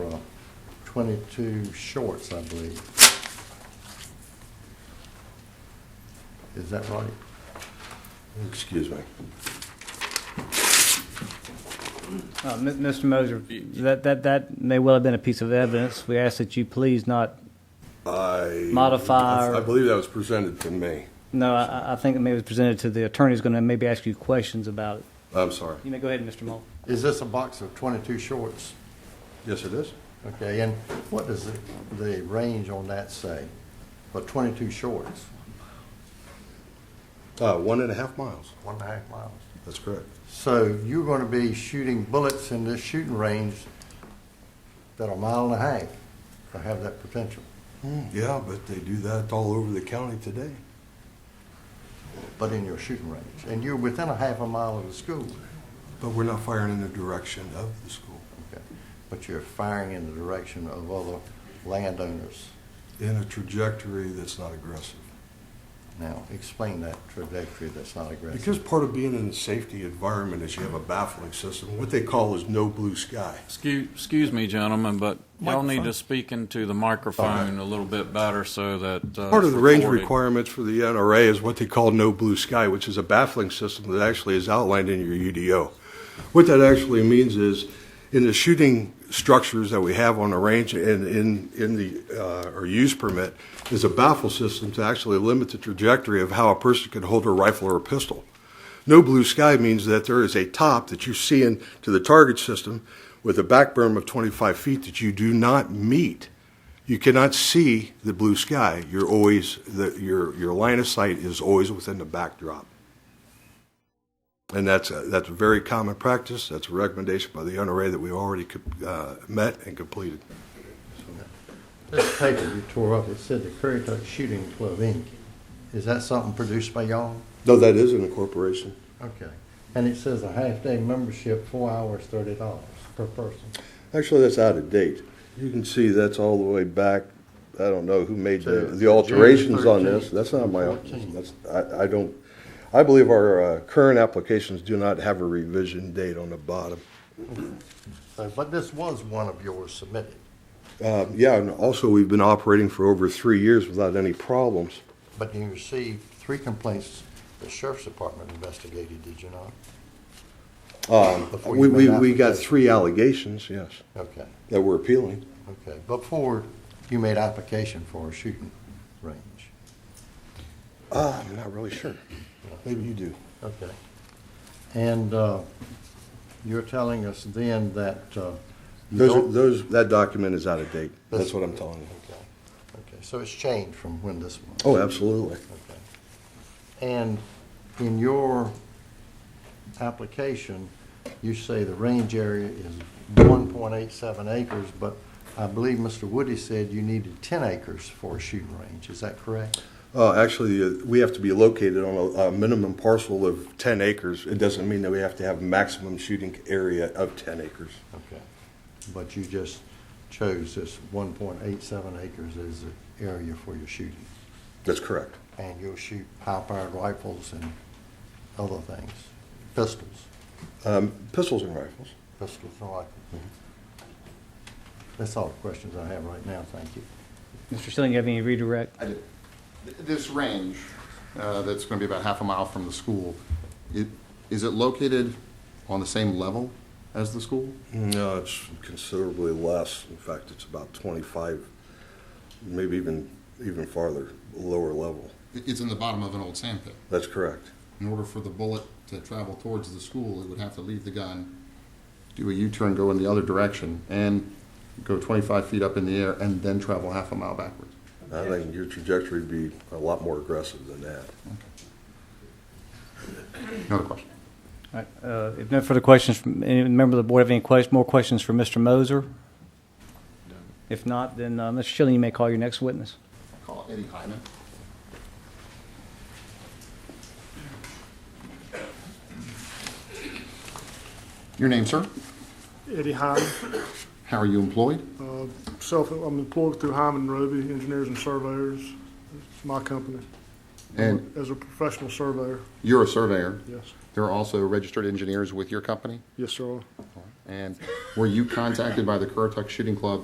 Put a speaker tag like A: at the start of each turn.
A: twenty-two shorts, I believe. Is that right?
B: Excuse me.
C: Uh, Mi- Mr. Moser, that, that, that may well have been a piece of evidence. We ask that you please not,
B: I.
C: Modify or-
B: I believe that was presented to me.
C: no, I- I, I think it may was presented to the attorney who's going to maybe ask you questions about it.
B: I'm sorry.
C: You may go ahead, Mr. Mole.
A: Is this a box of twenty-two shorts?
B: Yes, it is.
A: Okay, and what does the, the range on that say for twenty-two shorts?
B: Uh, one and a half miles.
A: One and a half miles.
B: That's correct.
A: So you're going to be shooting bullets in this shooting range that are a mile and a half to have that potential.
B: Hmm. Yeah, but they do that all over the county today.
A: but in your shooting range. And you're within a half a mile of the school,
B: But we're not firing in the direction of the school,
A: okay? but you're firing in the direction of other landowners.
B: in a trajectory that's not aggressive.
A: Now, explain that trajectory that's not aggressive.
B: Because part of being in a safety environment is you have a baffling system, what they call is no blue sky.
D: Excuse, excuse me, gentlemen, but y'all need to speak into the microphone a little bit better so that. uh,
B: Part of
D: it's
B: the range
D: recorded.
B: requirements for the NRA is what they call no blue sky, which is a baffling system that actually is outlined in your UDO. What that actually means is, in the shooting structures that we have on the range and in, in the, uh, or use permit, is a baffle system to actually limit the trajectory of how a person can hold a rifle or a pistol. No blue sky means that there is a top that you see into the target system with a back berm of 25 feet that you do not meet. You cannot see the blue sky. You're always the, your your line of sight is always within the backdrop, and that's a, that's a very common practice. That's a recommendation by the NRA that we already co- uh, met and completed.
A: This paper you tore up, it said the Currituck Shooting Club, Inc. Is that something produced by y'all?
B: No, that is an incorporation.
A: Okay. And it says a half-day membership, four hours, thirty dollars per person.
B: Actually, that's out of date. You can see that's all the way back. I don't know who made
A: To
B: the, the alterations on this.
A: 13th,
B: That's not my,
A: 14th.
B: that's, I, I don't, I believe our uh, current applications do not have a revision date on the bottom.
A: So, but this was one of yours submitted.
B: Uh, yeah, and also we've been operating for over three years without any problems.
A: But you received three complaints the sheriff's department investigated, did you not? Before you
B: Um, We,
A: made
B: we, we got
A: application.
B: three allegations, yes,
A: Okay.
B: that we're appealing.
A: Okay, before you made application for a shooting range.
B: Uh, I'm not really sure. Maybe you do.
A: Okay. And uh, you're telling us then that uh, you
B: Those, are-
A: don't-
B: those, that document is out of date. That's what I'm telling you.
A: Okay, okay, so it's changed from when this was?
B: Oh, absolutely.
A: Okay. And in your application, you say the range area is 1.87 acres, but I believe Mr. Woody said you needed 10 acres for a shooting range. Is that correct?
B: Uh, actually, uh, we have to be located on a, a minimum parcel of 10 acres. It doesn't mean that we have to have maximum shooting area of 10 acres.
A: Okay, but you just chose this one point eight seven acres as the area for your shooting,
B: That's correct.
A: and you'll shoot high-powered rifles and other things, pistols,
B: Um, pistols and rifles.
A: pistols and rifles. That's all the questions I have right now, thank you.
C: Mr. Schilling, you have any redirect?
E: I did. Th- This range, uh, that's going to be about half a mile from the school, it, is it located on the same level as the school?
B: No, it's considerably less. In fact, it's about 25, maybe even, even farther, lower level.
E: It- It's in the bottom of an old sand pit.
B: That's correct.
E: In order for the bullet to travel towards the school, it would have to leave the gun, do a U-turn, go in the other direction, and go 25 feet up in the air, and then travel half a mile backwards.
B: I think your trajectory would be a lot more aggressive than that.
E: Another question.
C: All right, uh, If no further questions, from any member of the board have any ques- more questions for Mr. Moser? If not, then uh, Mr. Schilling, you may call your next witness.
E: Call Eddie Hyman. Your name, sir?
F: Eddie Hyman.
E: How are you employed?
F: Uh, Self, I'm employed through Hyman Roby Engineers and Surveyors. It's my company.
E: And
F: As a professional surveyor,
E: you're a surveyor.
F: yes.
E: There are also registered engineers with your company.
F: Yes, sir.
E: And were you contacted by the Currituck Shooting Club